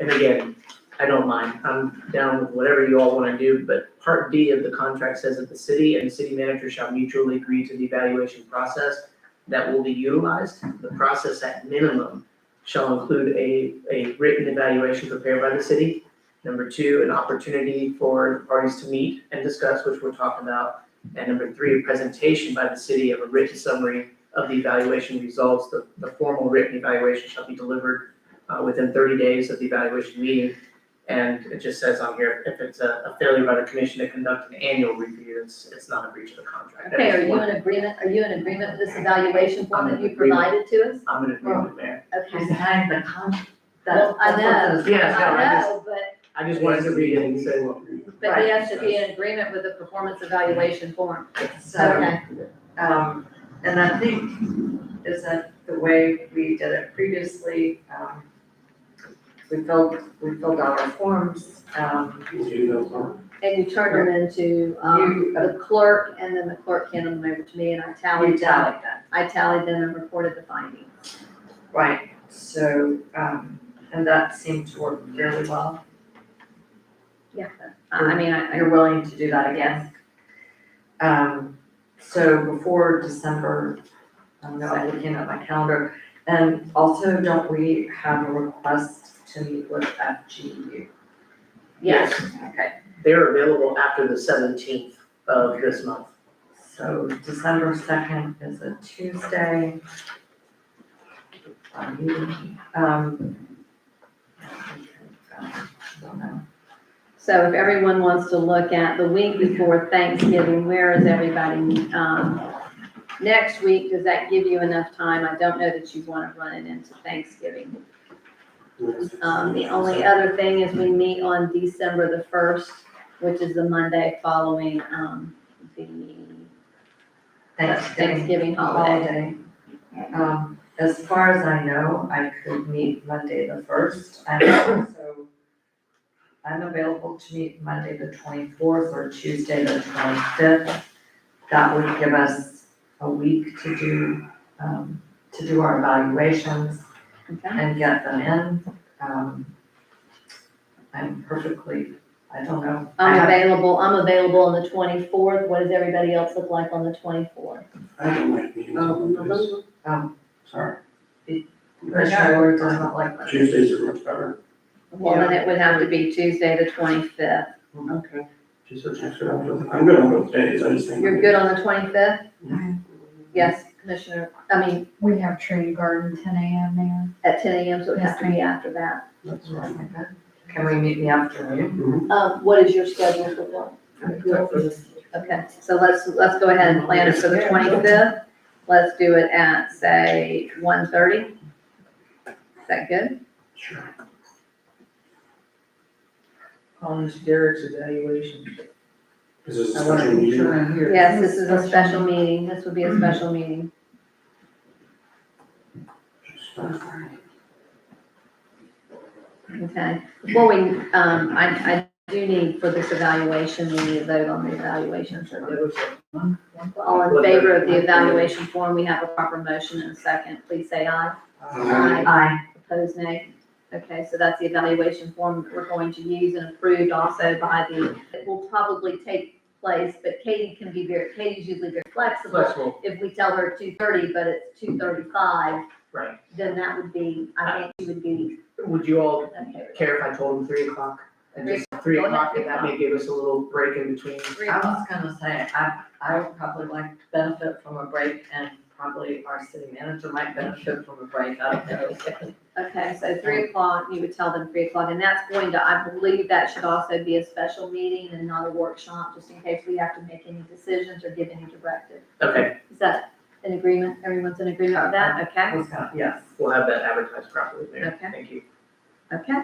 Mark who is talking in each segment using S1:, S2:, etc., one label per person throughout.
S1: and again, I don't mind, I'm down with whatever you all wanna do, but part D of the contract says that the city and city manager shall mutually agree to the evaluation process that will be utilized. The process at minimum shall include a, a written evaluation prepared by the city. Number two, an opportunity for parties to meet and discuss, which we're talking about. And number three, a presentation by the city of a written summary of the evaluation results. The, the formal written evaluation shall be delivered uh, within thirty days of the evaluation meeting. And it just says on here, if it's a, a failure by the commission to conduct an annual review, it's, it's not a breach of the contract. That
S2: Okay, are
S1: is
S2: you
S1: one.
S2: in agreement, are you in agreement with this evaluation form that
S1: I'm in
S2: you provided to us?
S1: I'm in agreement there.
S2: Okay.
S3: Behind the con,
S2: Well, I know.
S3: that's-
S1: Yes, no, I
S2: I
S1: just,
S2: know, but,
S1: I just wanted to read it and say, well,
S2: but he has to be in agreement with the performance evaluation form.
S3: So, um, and I think, isn't the way we did it previously, um, we filled, we filled out our forms, um,
S2: And you turn them into, um, the clerk, and then the clerk handed them over to me, and I
S3: we
S2: tallied them.
S3: tallied that,
S2: I tallied them and reported the findings.
S3: right, so, um, and that seemed to work fairly well.
S2: Yeah. I I mean, I, I,
S3: You're willing to do that again? Um, so before December, I'm not looking at my calendar, and also don't we have a request to meet with FGU?
S2: yes,
S1: yes,
S3: Okay,
S1: they're available after the seventeenth of this month.
S3: so December second is a Tuesday. Um.
S2: so if everyone wants to look at the week before Thanksgiving, where is everybody? Um, next week, does that give you enough time? I don't know that you wanna run it into Thanksgiving. Um, the only other thing is we meet on December the first, which is the Monday following, um, the
S3: Thanksgiving
S2: Thanksgiving holiday.
S3: holiday. Um, as far as I know, I could meet Monday the first, and also I'm available to meet Monday the twenty-fourth or Tuesday the twenty-fifth. That would give us a week to do, um, to do our evaluations
S2: Okay.
S3: and get them in. Um, I'm perfectly, I don't know. I
S2: I'm
S3: have-
S2: available, I'm available on the twenty-fourth. What does everybody else look like on the twenty-fourth?
S4: I don't like meetings on Mondays,
S3: um,
S4: sorry.
S3: Commissioner Ward doesn't like that.
S4: Tuesdays are much better.
S2: Well, then it would have to be Tuesday, the twenty-fifth.
S1: Okay.
S4: Tuesdays are better. I'm good on both days, I just think.
S2: You're good on the twenty-fifth? Yes, Commissioner, I mean,
S5: We have Tree Garden ten AM there.
S2: at ten AM, so it has to be after that.
S4: That's
S3: Oh
S4: right.
S3: my God. Can we meet in the afternoon?
S2: Um, what is your schedule for that? Okay, so let's, let's go ahead and plan it for the twenty-fifth. Let's do it at, say, 1:30. Is that good?
S4: Sure.
S6: on this Derek's evaluation.
S4: Is this a
S6: I wanna
S4: special
S6: make
S4: meeting?
S6: sure I'm here.
S2: Yes, this is a special meeting. This would be a special meeting. Okay. Well, we, um, I, I do need for this evaluation, we need to vote on the evaluation. So
S6: There was a one- one-
S2: All in favor of the evaluation form, we have a proper motion and a second. Please say aye.
S1: Uh,
S4: Aye.
S3: Aye.
S2: Opposed, nay. Okay, so that's the evaluation form that we're going to use and approved also by the, it will probably take place, but Katie can be very, Katie's usually very flexible.
S1: Flexible,
S2: If we tell her two thirty, but it's two thirty-five,
S1: right.
S2: then that would be, I think she would be,
S1: Would you all
S2: okay.
S1: care if I told them three o'clock? And just three
S2: Go ahead,
S1: o'clock, and that
S2: three
S1: may give us a little break in between.
S2: Three
S3: I
S2: o'clock.
S3: was gonna say, I, I would probably like to benefit from a break and probably our city manager might benefit from a break, I don't know.
S2: Okay, so three o'clock, you would tell them three o'clock, and that's going to, I believe that should also be a special meeting and not a workshop, just in case we have to make any decisions or give any directive.
S1: Okay,
S2: Is that in agreement? Everyone's in agreement with that?
S3: I
S2: Okay,
S1: Uh-huh.
S3: was gonna, yes.
S1: we'll have that advertised properly there.
S2: Okay.
S1: Thank you.
S2: okay.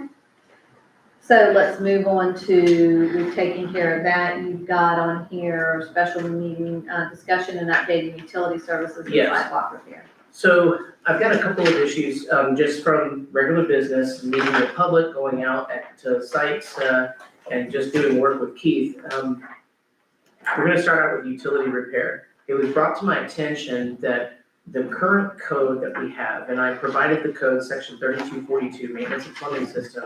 S2: So let's move on to, we've taken care of that. You've got on here special meeting, uh, discussion and updating utility services and
S1: Yes.
S2: sidewalk repair.
S1: So I've got a couple of issues, um, just from regular business, meeting the public, going out at, to sites, uh, and just doing work with Keith. Um, we're gonna start out with utility repair. It was brought to my attention that the current code that we have, and I provided the code, section thirty-two forty-two, maintenance of plumbing system,